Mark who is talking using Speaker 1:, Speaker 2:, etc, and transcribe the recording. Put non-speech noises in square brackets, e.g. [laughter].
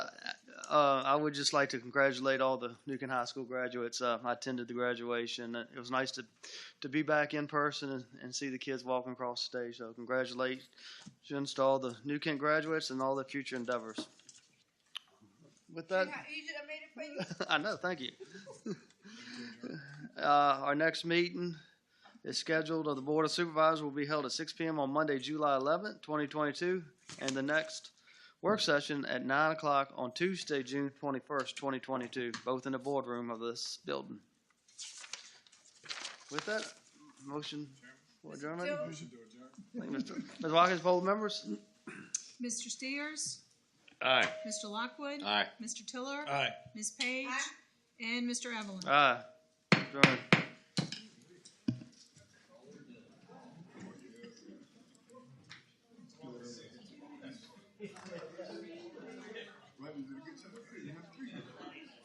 Speaker 1: uh, I would just like to congratulate all the Newcomb High School graduates. Uh, I attended the graduation. Uh, It was nice to, to be back in person and, and see the kids walking across the stage. So congratulations to all the New Kent graduates and all their future endeavors. With that,
Speaker 2: See how easy I made it for you?
Speaker 1: [laughs] I know. Thank you. uh, our next meeting is scheduled of the Board of Supervisors will be held at 6 p.m. on Monday, July 11th, 2022, and the next work session at 9 o'clock on Tuesday, June 21st, 2022, both in the boardroom of this building. With that, motion for adjournment.
Speaker 2: Jones?
Speaker 1: Thank you, Mr. Ms. Watkins, poll members.
Speaker 3: Mr. Steers?
Speaker 4: Aye.
Speaker 3: Mr. Lockwood?
Speaker 4: Aye.
Speaker 3: Mr. Tiller?
Speaker 4: Aye.
Speaker 3: Ms. Page?
Speaker 2: Aye.
Speaker 3: And Mr. Evelyn?
Speaker 1: Aye. Adjourned.
Speaker 5: Right, we did a good job. You have three.